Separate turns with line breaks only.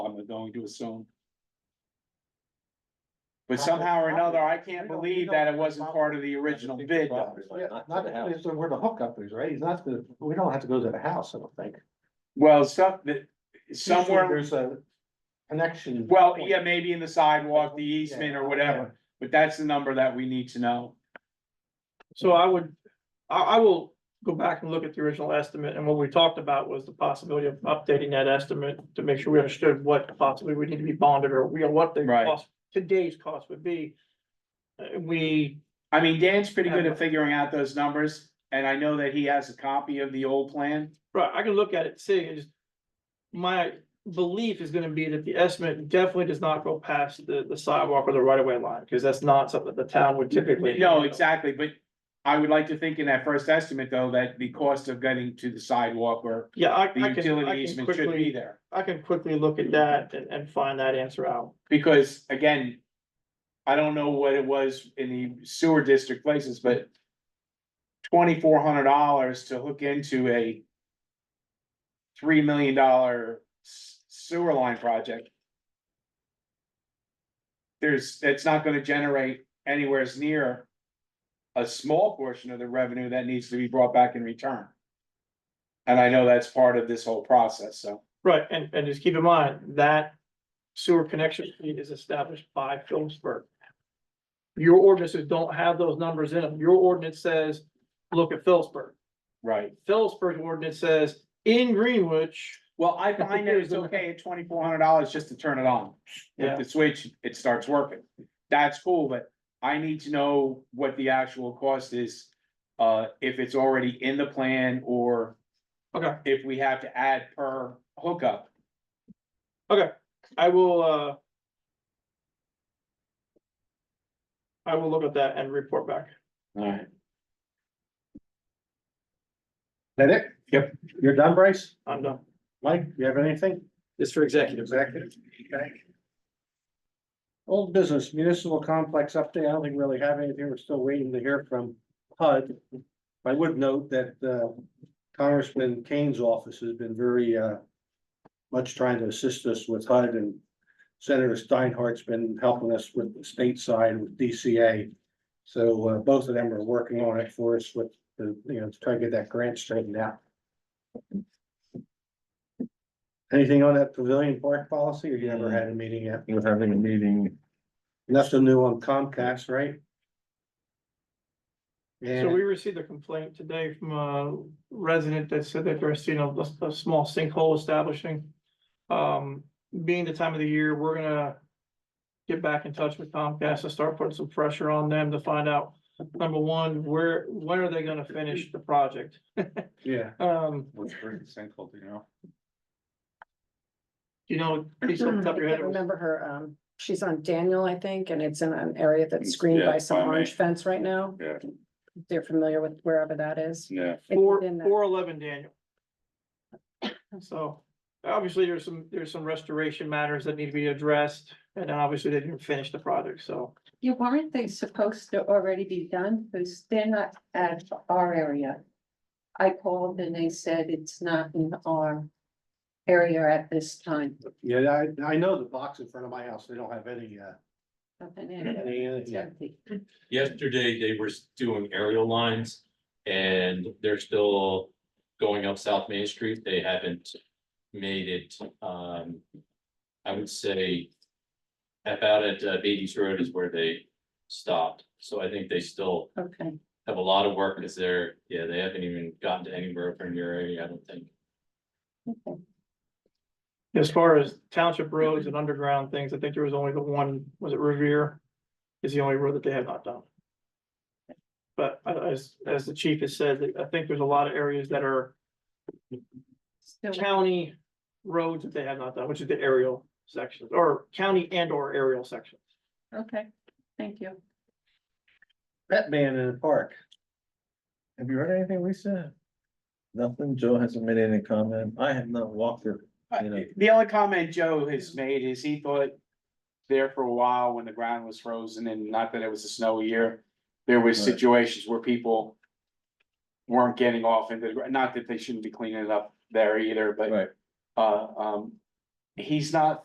going to assume. But
Not
somehow or
that-
another, I can't
we don't- we
believe
don't-
that it wasn't
not-
part of the original bid. though.
Yeah, not, it's where the hookup is, right? He's not, the- we don't have to go to the house, I don't think.
Well, some, the,
Usually
somewhere,
There's a connection.
well, E
point.
yeah, maybe in the sidewalk, the easement or whatever, but that's the number that we need to know.
So I would, I, I will go back and look at the original estimate, and what we talked about was the possibility of updating that estimate to make sure we understood what possibly would need to be bonded, or we, what the
Right.
cost, today's cost would be. Uh, we,
I mean, Dan's pretty good at figuring out those numbers, and I know that he has a copy of the old plan.
right, I can look at it, see, and just. My belief is gonna be that the estimate definitely does not go past the, the sidewalk or the right of way line, because that's not something the town would typically.
No, exactly, but I would like to think in that first estimate, though, that the cost of getting to the sidewalk or
Yeah, I, I
the
can, I
utility
can
easement should be
quickly,
there.
I can quickly look at that and, and find that answer out.
Because again, I don't know what it was in the sewer district places, but twenty-four hundred dollars to hook into a three million dollar sewer line project. There's, it's not gonna generate anywhere as near a small portion of the revenue that needs to be brought back in return. And I know that's part of this whole process, so,
Right, and, and just keep in mind, that sewer connection fee is established by Phillipsburg. Your ordinances don't have those numbers in them. Your ordinance says, look at Phillipsburg.
right.
Phillipsburg's ordinance says, in Greenwich,
Well, I find that it's okay at twenty-four hundred dollars just to turn it on.
Yeah.
With the switch, it starts working. That's cool, but I need to know what the actual cost is. Uh, if it's already in the plan or.
Okay.
If we have to add per hookup.
I will, uh, I will look at that and report back.
Alright.
That it?
Yep.
You're done, Bryce?
I'm done.
Mike, you have anything?
It's for executive.
Executive. Okay. Old business municipal complex update. I don't think we really have anything. We're still waiting to hear from HUD. I would note that uh, Congressman Kane's office has been very uh, much trying to assist us with HUD and Senator Steinhardt's been helping us with the state side with DCA. So uh, both of them are working on it for us with the, you know, to try to get that grant straightened out. Anything on that pavilion park policy or you never
Mm.
had a meeting yet?
We're having a meeting.
Nothing new on Comcast, right?
So
And
we received a complaint today from a resident that said that they're seeing a, a- a small sinkhole establishing. Um, being the time of the year, we're gonna get back in touch with Comcast and start putting some pressure on them to find out, number one, where, when are they gonna finish the project?
yeah,
Um,
Which brings sinkhole, you know.
you know,
I
please off the top of your head,
can't
it was-
remember her, um, she's on Daniel, I think, and it's in an area that's screened
Yeah,
by some
by me.
orange fence right now.
Yeah.
They're familiar with wherever that is.
Yeah,
It's
four,
within that-
four eleven Daniel. So, obviously, there's some, there's some restoration matters that need to be addressed, and then obviously they didn't finish the project, so.
Yeah, weren't they supposed to already be done? Because they're not at our area. I called and they said it's not in our area at this time.
yeah, I, I know the box in front of my house, they don't have any, uh,
Nothing in it.
any, uh,
It's
yeah.
empty.
Yesterday, they were doing aerial lines and they're still going up South Main Street. They haven't made it, um, I would say about at uh, Beatty's Road is where they stopped. So I think they still
Okay,
have a lot of work because they're, yeah, they haven't even gotten to anywhere from your area, I don't think.
okay.
As far as township roads and underground things, I think there was only the one, was it Revere? Is the only road that they have not done. But I- as, as the chief has said, I think there's a lot of areas that are
Still,
county roads that they have not done, which is the aerial sections, or county and or aerial sections.
okay, thank you.
Batman in the park,
Have you heard anything, Lisa? Nothing. Joe hasn't made any comment. I have not walked her. You know.
Uh, The only comment Joe has made is he thought there for a while when the ground was frozen and not that it was a snowy year, there were situations where people weren't getting off into the, gr- not that they shouldn't be cleaning it up there either, but
Right.
uh, um, he's not